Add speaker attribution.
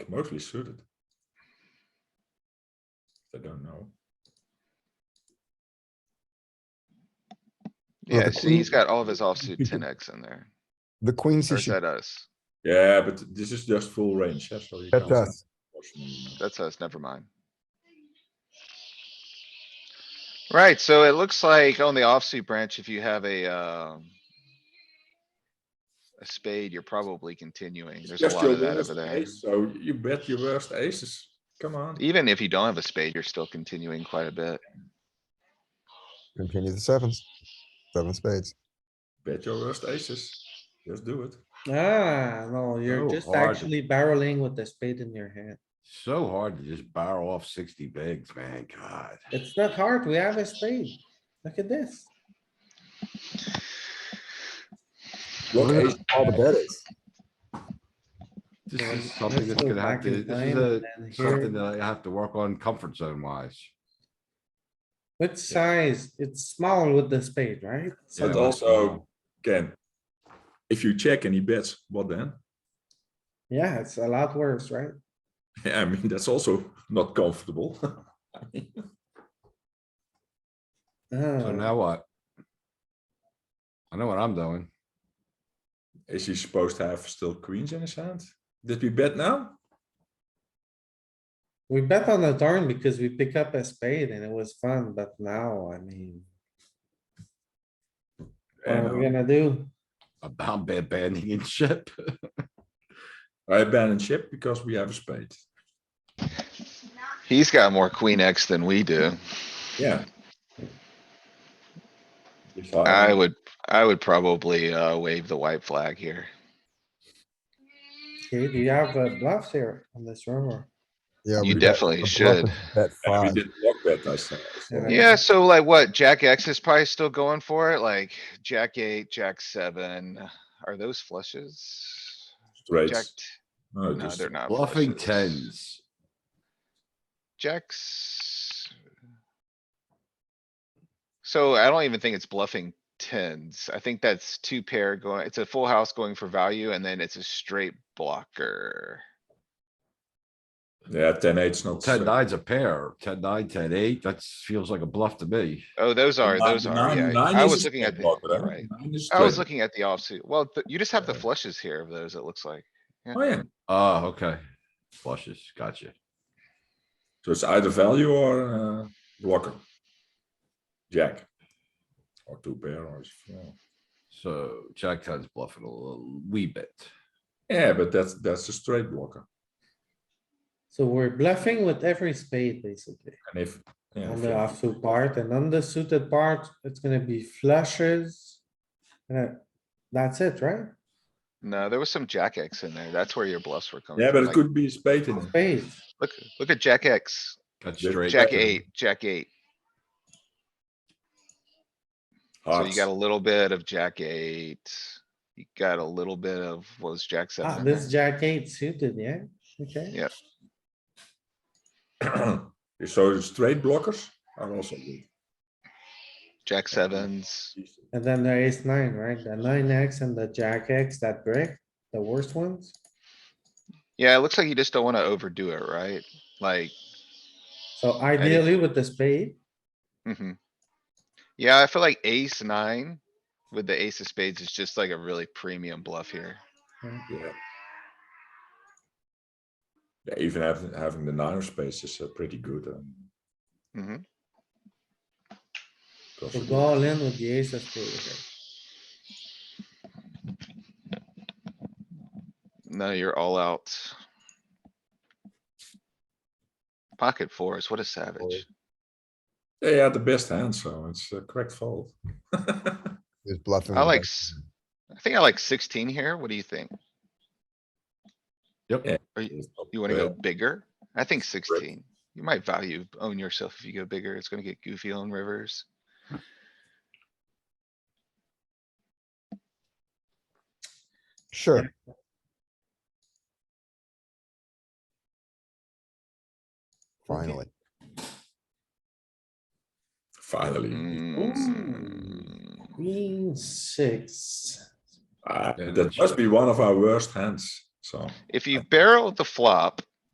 Speaker 1: mostly suited. I don't know.
Speaker 2: Yeah,
Speaker 3: the
Speaker 2: see, he's
Speaker 3: queen-
Speaker 2: got all of his offsuit ten X in there.
Speaker 3: The queen
Speaker 2: Or
Speaker 3: C
Speaker 2: is
Speaker 3: should,
Speaker 2: that us?
Speaker 1: Yeah, but this is just full range, yeah, so you
Speaker 3: that's
Speaker 1: can't-
Speaker 3: us.
Speaker 2: That's us, never mind. Right, so it looks like on the offsuit branch, if you have a, um. A spade, you're probably continuing.
Speaker 1: It's
Speaker 2: There's a
Speaker 1: just
Speaker 2: lot
Speaker 1: your
Speaker 2: of that
Speaker 1: worst
Speaker 2: over there. E-
Speaker 1: ace, So you bet your worst aces, come on.
Speaker 2: Even if you don't have a spade, you're still continuing quite a bit.
Speaker 3: Continue the sevens. Seven spades.
Speaker 1: Bet your worst aces. Just do it.
Speaker 4: Ah, no, you're
Speaker 5: Oh,
Speaker 4: just
Speaker 5: hard.
Speaker 4: actually barreling with the spade in your hand.
Speaker 5: So hard to just barrel off sixty bigs, man, god.
Speaker 4: It's not hard. We have a spade. Look at this.
Speaker 1: What
Speaker 3: Look at
Speaker 1: ace-
Speaker 3: All the bet is.
Speaker 5: This
Speaker 4: So
Speaker 5: is
Speaker 4: let's-
Speaker 5: something
Speaker 4: let's
Speaker 5: that's
Speaker 4: go
Speaker 5: gonna have
Speaker 4: back in
Speaker 5: to, this
Speaker 4: time
Speaker 5: is
Speaker 4: and then
Speaker 5: a, something
Speaker 4: here.
Speaker 5: that I have to work on comfort zone wise.
Speaker 4: What size? It's small with the spade, right? So
Speaker 5: Yeah,
Speaker 1: But
Speaker 5: like,
Speaker 1: also, Ken, if you check and he bets, what then?
Speaker 4: Yeah, it's a lot worse, right?
Speaker 1: Yeah, I mean, that's also not comfortable.
Speaker 5: So
Speaker 4: Uh,
Speaker 5: now what? I know what I'm doing.
Speaker 1: Is he supposed to have still queens in his hand? Did we bet now?
Speaker 4: we bet on the turn because we pick up a spade and it was fun, but now, I mean, what
Speaker 1: And
Speaker 4: are Uh, we gonna do?
Speaker 5: About bad banding and shit.
Speaker 1: I abandon ship because we have a spade.
Speaker 2: He's got more queen X than we do.
Speaker 1: Yeah. If
Speaker 2: I would, I would probably, uh, wave the white flag here.
Speaker 4: Okay, do you have uh, bluffs here on this river?
Speaker 3: Yeah,
Speaker 2: You
Speaker 3: we bet-
Speaker 2: definitely
Speaker 3: the
Speaker 2: should.
Speaker 3: bluff is Bet
Speaker 1: And we
Speaker 3: five.
Speaker 1: did block bet, I said.
Speaker 4: Yeah.
Speaker 2: Yeah, so like what? Jack X is probably still going for it, like Jack eight, Jack seven. Are those flushes? Jack,
Speaker 1: Straight.
Speaker 2: t-
Speaker 1: No,
Speaker 2: no,
Speaker 1: just-
Speaker 2: they're not.
Speaker 5: Bluffing
Speaker 2: flushes.
Speaker 5: tens.
Speaker 2: Jacks. So I don't even think it's bluffing tens. I think that's two pair going, it's a full house going for value and then it's a straight blocker.
Speaker 1: Yeah, ten eight's not.
Speaker 5: Ten
Speaker 1: straight.
Speaker 5: nine's a pair, ten nine, ten eight, that feels like a bluff to me.
Speaker 2: Oh, those are,
Speaker 1: Nine-
Speaker 2: those are,
Speaker 1: nine-
Speaker 2: yeah.
Speaker 1: nine
Speaker 2: I
Speaker 1: is a
Speaker 2: was looking
Speaker 1: straight
Speaker 2: at, the
Speaker 1: blocker, huh?
Speaker 2: right.
Speaker 1: Nine is
Speaker 2: I was
Speaker 1: straight.
Speaker 2: looking at the offsuit. Well, th- you just have the
Speaker 1: Yeah.
Speaker 2: flushes here of those, it looks like. at-
Speaker 1: Oh, yeah.
Speaker 5: Oh, okay. Flushes, gotcha.
Speaker 1: So it's either value or uh, blocker. Jack. Or two pair or. yeah.
Speaker 5: So Jack ten's bluffing a little wee bit.
Speaker 1: Yeah, but that's, that's a straight blocker.
Speaker 4: So we're bluffing with every spade, basically.
Speaker 1: And if. yeah,
Speaker 4: On
Speaker 1: if
Speaker 4: the
Speaker 1: you-
Speaker 4: offsuit part and on the suited part, it's gonna be flushes. And that's it, right?
Speaker 2: No, there was some jack X in there. That's where your bluffs were coming.
Speaker 1: Yeah, but
Speaker 2: from,
Speaker 1: it
Speaker 2: like,
Speaker 1: could be a spade in. it.
Speaker 4: Spade.
Speaker 2: Look, look at jack X,
Speaker 5: Got
Speaker 1: Jack-
Speaker 5: straight.
Speaker 2: jack
Speaker 1: Jack-
Speaker 2: eight, jack eight. So you
Speaker 1: Hearts.
Speaker 2: got a little bit of jack eight. You got a little bit of, what was jack
Speaker 4: Ah,
Speaker 2: seven? in
Speaker 4: this
Speaker 2: there?
Speaker 4: jack eight suited, yeah? Okay,
Speaker 1: So the straight blockers are also good.
Speaker 2: Jack sevens.
Speaker 4: and then the ace nine, right? The nine X and the jack X that break, the worst ones.
Speaker 2: Yeah, it looks like you just don't wanna overdo it, right? Like,
Speaker 4: So ideally with the spade,
Speaker 2: mhm. Yeah, I feel like ace nine with the ace of spades is just like a really premium bluff here.
Speaker 1: Yeah. Yeah, even having, having the nine of spades is uh, pretty good. um,
Speaker 2: hmm Mm-hmm.
Speaker 1: because
Speaker 4: we
Speaker 1: of
Speaker 4: go all in with the ace of spade. okay.
Speaker 2: No, you're all out. Pocket fours, what a
Speaker 1: the-
Speaker 2: savage.
Speaker 1: They had the best hand, so it's a correct fold.
Speaker 3: Is bluffing.
Speaker 2: I
Speaker 3: with
Speaker 2: like,
Speaker 3: bet-
Speaker 2: s- I think I like sixteen here. What do you think?
Speaker 5: Yep.
Speaker 1: Yeah.
Speaker 2: Are you, you wanna go bigger? I think sixteen. You might value own yourself if you go bigger. It's gonna get goofy on rivers.
Speaker 3: Sure. Finally.
Speaker 2: Mm-hmm.
Speaker 1: Finally.
Speaker 2: Mm,
Speaker 4: Queen six.
Speaker 1: Ah,
Speaker 5: Yeah,
Speaker 1: That
Speaker 5: that's-
Speaker 1: must be one of our worst hands, so.
Speaker 2: If you barrel the flop,